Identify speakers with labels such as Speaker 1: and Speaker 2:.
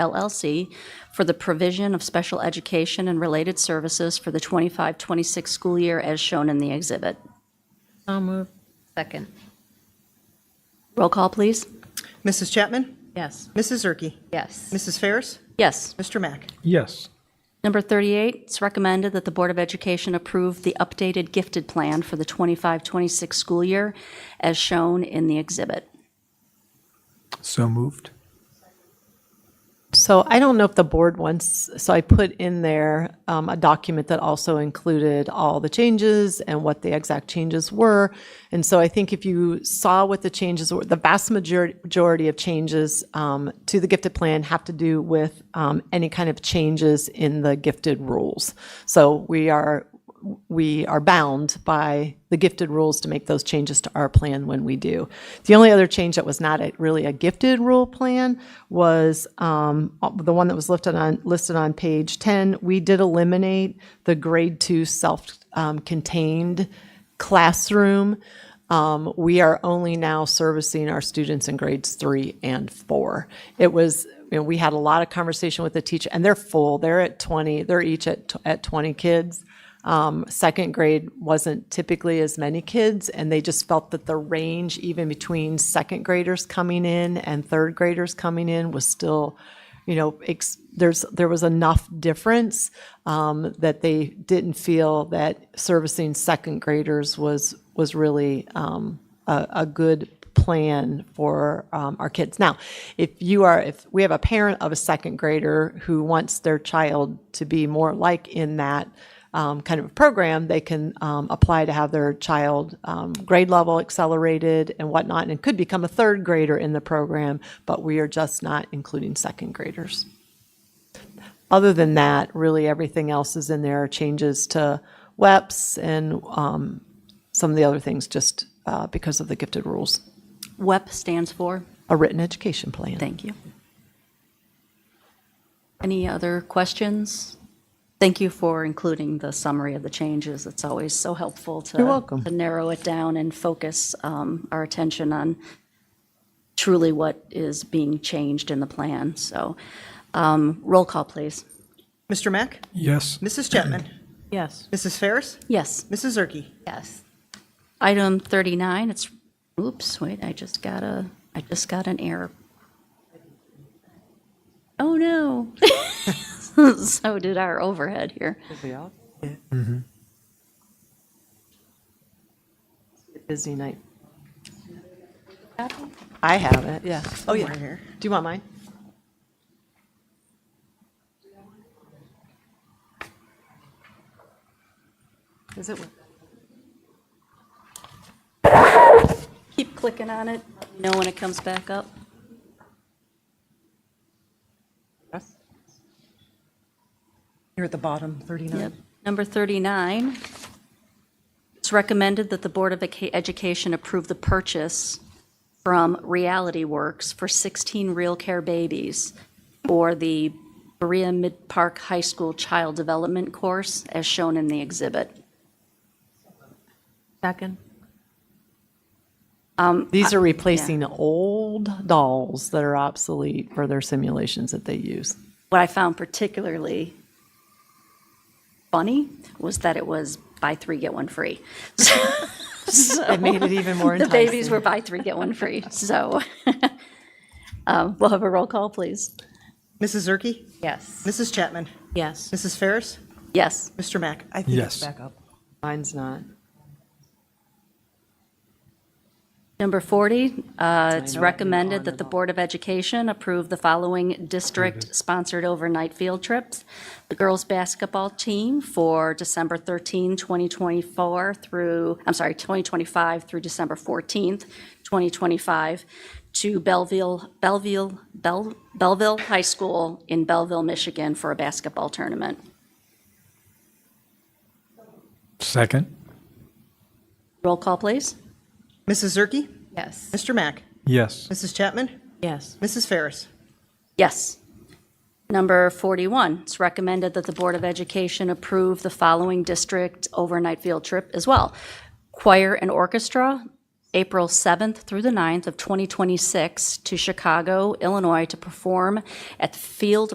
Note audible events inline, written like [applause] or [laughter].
Speaker 1: LLC for the provision of special education and related services for the 25-26 school year as shown in the exhibit.
Speaker 2: So moved. Second.
Speaker 1: Roll call, please.
Speaker 3: Mrs. Chapman?
Speaker 2: Yes.
Speaker 3: Mrs. Zerke?
Speaker 2: Yes.
Speaker 3: Mrs. Ferris?
Speaker 1: Yes.
Speaker 3: Mr. Mack?
Speaker 4: yes,
Speaker 1: Number 38, it's recommended that the Board of Education approve the updated gifted plan for the 25-26 school year as shown in the exhibit.
Speaker 4: so moved.
Speaker 5: So I don't know if the board wants, so I put in there um, a document that also included all the changes and what the exact changes were. And so I think if you saw what the changes were, the vast majority, majority of changes um, to the gifted plan have to do with um, any kind of changes in the gifted rules. So we are, we are bound by the gifted rules to make those changes to our plan when we do. The only other change that was not a, really a gifted rule plan was um, the one that was listed on listed on page ten. We did eliminate the grade two self-contained classroom. Um, we are only now servicing our students in grades three and four. It was, you know, we had a lot of conversation with the teacher, and they're full. They're at twenty. They're each at at twenty kids. Um, second grade wasn't typically as many kids, and they just felt that the range, even between second graders coming in and third graders coming in, was still, you know, ex- there's there was enough difference um, that they didn't feel that servicing second graders was was really um, a, a good plan for um, our kids. Now, if you are, if we have a parent of a second grader who wants their child to be more like in that um, kind of program, they can um, apply to have their child um, grade level accelerated and whatnot, and could become a third grader in the program, but we are just not including second graders. Other than that, really everything else is in there, changes to WEPs and um, some of the other things just uh, because of the gifted rules.
Speaker 1: WEP E stands for?
Speaker 5: A written education plan.
Speaker 1: Thank you. Any other questions? Thank you for including the summary of the changes. It's always so helpful to.
Speaker 5: You're welcome.
Speaker 1: To narrow it down and focus um, our attention on truly what is being changed in the plan. So um, roll call, please.
Speaker 3: Mr. Mack?
Speaker 4: Yes,
Speaker 3: Mrs. Chapman?
Speaker 2: Yes.
Speaker 3: Mrs. Ferris?
Speaker 1: Yes.
Speaker 3: Mrs. Zerke?
Speaker 2: Yes.
Speaker 1: Item 39, it's, oops, wait, I just got a, I just got an error. Oh, no. [laughs] So did our overhead here.
Speaker 5: Busy night. I have it, yeah. Oh, yeah. Do you want mine? Is it?
Speaker 1: Keep clicking on it, Let me know when it comes back up.
Speaker 5: Yes.
Speaker 3: You're at the bottom, 39.
Speaker 1: Yep. Number 39, it's recommended that the Board of Eca- Education approve the purchase from Reality Works for 16 Real Care Babies for the Berea Mid Park High School Child Development Course, as shown in the exhibit.
Speaker 2: Second.
Speaker 5: These are replacing old dolls that are obsolete for their simulations that they use.
Speaker 1: What I found particularly funny was that it was buy three, get one free. [laughs]
Speaker 5: It made it even [laughs] more
Speaker 1: The
Speaker 5: enticing.
Speaker 1: babies were buy three, get one free, so. [laughs] um, We'll have a roll call, please.
Speaker 3: Mrs. Zerke?
Speaker 2: Yes.
Speaker 3: Mrs. Chapman?
Speaker 2: Yes.
Speaker 3: Mrs. Ferris?
Speaker 1: Yes.
Speaker 3: Mr. Mack?
Speaker 5: I think
Speaker 4: it's Yes.
Speaker 5: it's
Speaker 4: back
Speaker 5: back up. Mine's not.
Speaker 1: Number 40, uh, it's recommended that the Board of Education approve the following district-sponsored overnight field trips. The girls' basketball team for December 13, 2024 through, I'm sorry, 2025 through December 14th, 2025, to Belleville, Belleville, Bell Belleville High School in Belleville, Michigan for a basketball tournament.
Speaker 4: second,
Speaker 1: Roll call, please.
Speaker 3: Mrs. Zerke?
Speaker 2: Yes.
Speaker 3: Mr. Mack?
Speaker 4: yes,
Speaker 3: Mrs. Chapman?
Speaker 2: Yes.
Speaker 3: Mrs. Ferris?
Speaker 1: Yes. Number 41, it's recommended that the Board of Education approve the following district overnight field trip as well. Choir and orchestra April 7th through the 9th of 2026 to Chicago, Illinois, to perform at the Field